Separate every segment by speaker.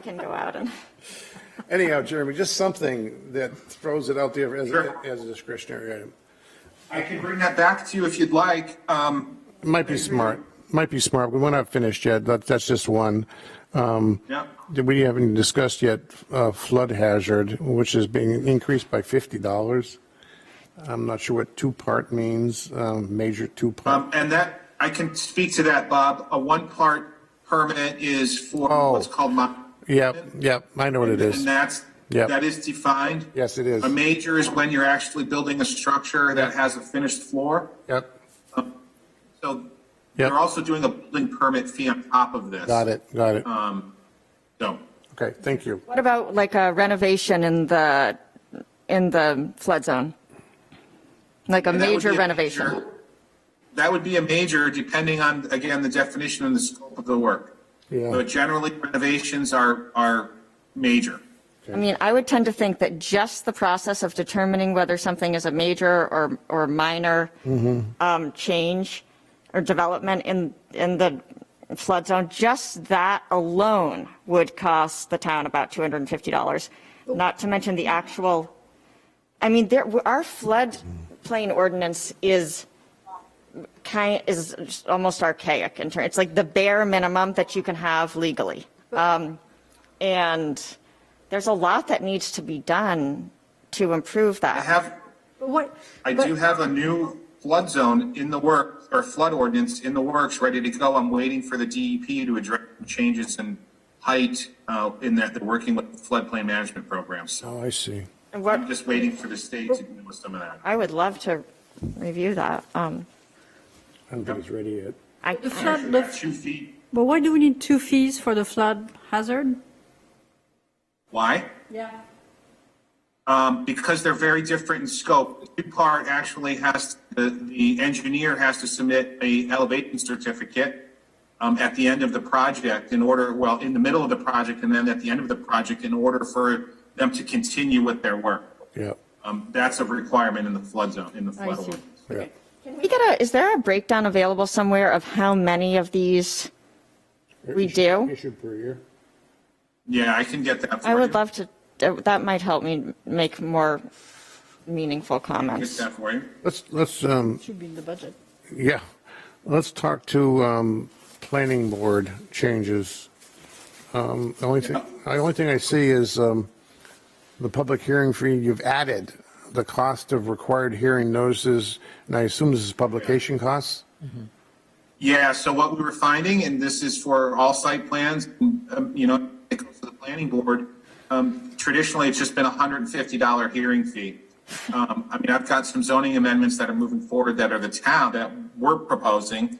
Speaker 1: can go out and,
Speaker 2: Anyhow, Jeremy, just something that throws it out there as,
Speaker 3: Sure.
Speaker 2: as a discretionary item.
Speaker 3: I can bring that back to you if you'd like. Um,
Speaker 2: Might be smart, might be smart. We're not finished yet. That, that's just one. Um,
Speaker 3: Yeah.
Speaker 2: that We haven't discussed yet uh, flood hazard, which is being increased by $50. I'm not sure what two-part means, um, major two-part.
Speaker 3: um, and that, I can speak to that, Bob. A one-part permit is for
Speaker 2: Oh.
Speaker 3: what's called mon-
Speaker 2: Yep, yep, I know what it is.
Speaker 3: And that's,
Speaker 2: Yep.
Speaker 3: that is defined.
Speaker 2: Yes, it is.
Speaker 3: A major is when you're actually building a structure that has a finished floor.
Speaker 2: Yep,
Speaker 3: So
Speaker 2: Yep.
Speaker 3: they're also doing a building permit fee on top of this.
Speaker 2: got it, got it.
Speaker 3: Uh, So,
Speaker 2: Okay, thank you.
Speaker 1: what about like a renovation in the, in the flood zone? Like a
Speaker 3: And that would
Speaker 1: major
Speaker 3: be a
Speaker 1: renovation?
Speaker 3: major- That would be a major, depending on, again, the definition and the scope of the work.
Speaker 2: Yeah.
Speaker 3: So generally renovations are, are major.
Speaker 1: I mean, I would tend to think that just the process of determining whether something is a major or, or minor
Speaker 3: Mm-hmm.
Speaker 1: um, change or development in, in the flood zone, just that alone would cost the town about $250, not to mention the actual, I mean, there, our floodplain ordinance is kind, is just almost archaic in terms, it's like the bare minimum that you can have legally. Um, And there's a lot that needs to be done to improve
Speaker 3: I
Speaker 1: that.
Speaker 3: have,
Speaker 4: But What?
Speaker 3: I
Speaker 4: but-
Speaker 3: do have a new flood zone in the work, or flood ordinance in the works, ready to go. I'm waiting for the DEP to address changes in height, uh, in that they're working with floodplain management programs. So
Speaker 2: Oh, I see.
Speaker 1: And
Speaker 3: I'm
Speaker 1: what,
Speaker 3: just waiting for the state to do some of that.
Speaker 1: I would love to review that. Um,
Speaker 2: I don't think it's ready yet.
Speaker 1: I,
Speaker 4: The flood, the-
Speaker 3: Two feet
Speaker 4: but why do we need two fees for the flood hazard?
Speaker 3: Why?
Speaker 4: Yeah.
Speaker 3: Um, because they're very different in scope. The Two-part actually has, the, the engineer has to submit a elevation certificate um, at the end of the project in order, well, in the middle of the project and then at the end of the project in order for them to continue with their work.
Speaker 2: Yep,
Speaker 3: Um, that's a requirement in the flood zone, in the flood
Speaker 4: see.
Speaker 3: ordinance.
Speaker 2: yep.
Speaker 1: we get a, is there a breakdown available somewhere of how many of these? We do?
Speaker 2: Issued per year.
Speaker 3: Yeah, I can get that for
Speaker 1: I
Speaker 3: you.
Speaker 1: would love to, that might help me make more meaningful
Speaker 3: Get
Speaker 1: comments.
Speaker 3: that for you.
Speaker 2: Let's, let's, um,
Speaker 4: Should be in the budget.
Speaker 2: Yeah, let's talk to um, planning board changes. Um, The only thing, the only thing I see is um, the public hearing fee, you've added the cost of required hearing notices, and I assume this is publication costs?
Speaker 3: Yeah, so what we were finding, and this is for all site plans, um, you know, it goes to the planning board. Um, traditionally, it's just been a hundred and fifty dollar hearing fee. Um, I mean, I've got some zoning amendments that are moving forward that are the town that we're proposing,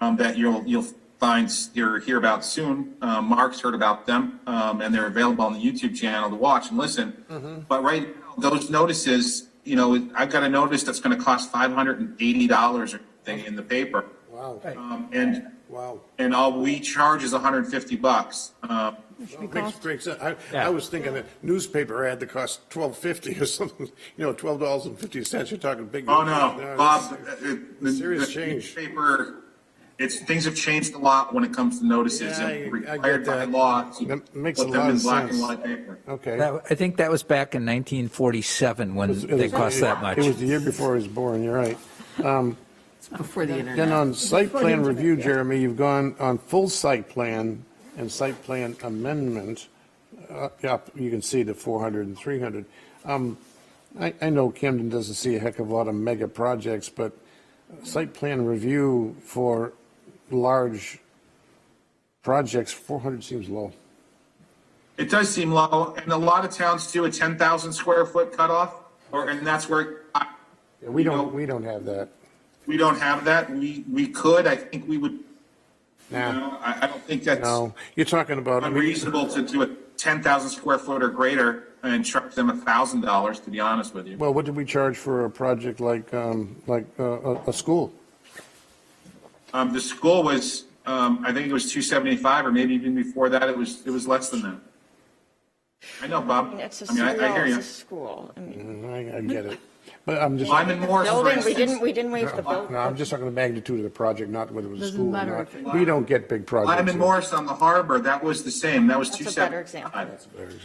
Speaker 3: um, that you'll, you'll find, you'll hear about soon. Uh, Mark's heard about them, um, and they're available on the YouTube channel to watch and listen. But right, now, those notices, you know, I've got a notice that's gonna cost five hundred and eighty dollars or something in the paper.
Speaker 2: Wow,
Speaker 3: Um, and,
Speaker 2: wow.
Speaker 3: and all we charge is hundred and fifty bucks. Uh,
Speaker 2: Makes great sense. I, I was thinking that newspaper ad that costs twelve fifty or something, you know, twelve dollars and fifty cents, you're talking big.
Speaker 3: oh no,
Speaker 2: it's-
Speaker 3: Bob, uh, uh, the,
Speaker 2: Serious
Speaker 3: the
Speaker 2: change.
Speaker 3: newspaper, it's, things have changed a lot when it comes to notices
Speaker 2: Yeah, I-
Speaker 3: and
Speaker 2: I get
Speaker 3: required by
Speaker 2: that.
Speaker 3: law. to
Speaker 2: That makes a
Speaker 3: put them
Speaker 2: lot
Speaker 3: in
Speaker 2: of
Speaker 3: black and
Speaker 2: sense.
Speaker 3: white paper.
Speaker 2: Okay.
Speaker 5: That, I think that was back in 1947 when
Speaker 2: It
Speaker 5: they
Speaker 2: was-
Speaker 5: cost that much.
Speaker 2: It was the year before I was born, you're right. Um,
Speaker 4: Before the internet.
Speaker 2: Then on site plan review, Jeremy, you've gone on full site plan and site plan amendment. uh, Yep, you can see the 400 and 300. Um, I, I know Camden doesn't see a heck of a lot of mega projects, but site plan review for large projects, 400 seems low.
Speaker 3: It does seem low, and a lot of towns do a ten thousand square foot cutoff, or, and that's where, I-
Speaker 2: Yeah, We
Speaker 3: You know-
Speaker 2: don't, we don't have that.
Speaker 3: we don't have that. We, we could, I think we would, you
Speaker 2: Nah,
Speaker 3: know, I, I don't think that's.
Speaker 2: no, you're talking about. I mean,
Speaker 3: unreasonable to do a ten thousand square foot or greater and charge them a thousand dollars, to be honest with you.
Speaker 2: Well, what did we charge for a project like, um, like uh, a, a school?
Speaker 3: Um, the school was, um, I think it was two seventy-five, or maybe even before that, it was, it was less than that. I know, Bob.
Speaker 1: It's a
Speaker 3: I mean, I, I
Speaker 1: school,
Speaker 3: hear you.
Speaker 1: it's a school. I mean,
Speaker 2: I, I get it. But I'm just,
Speaker 3: Lyman
Speaker 2: no,
Speaker 3: Morris, for
Speaker 1: Building, we
Speaker 3: instance,
Speaker 1: didn't, we didn't waive the building.
Speaker 2: I'm just talking the magnitude of the project, not whether it was a
Speaker 4: Doesn't
Speaker 2: school or
Speaker 4: matter
Speaker 2: not.
Speaker 4: if it-
Speaker 2: We don't get big projects.
Speaker 3: Lyman Morris on the harbor, that was the same, that was
Speaker 1: That's a
Speaker 3: two
Speaker 1: better
Speaker 3: separate.
Speaker 1: example.
Speaker 2: Very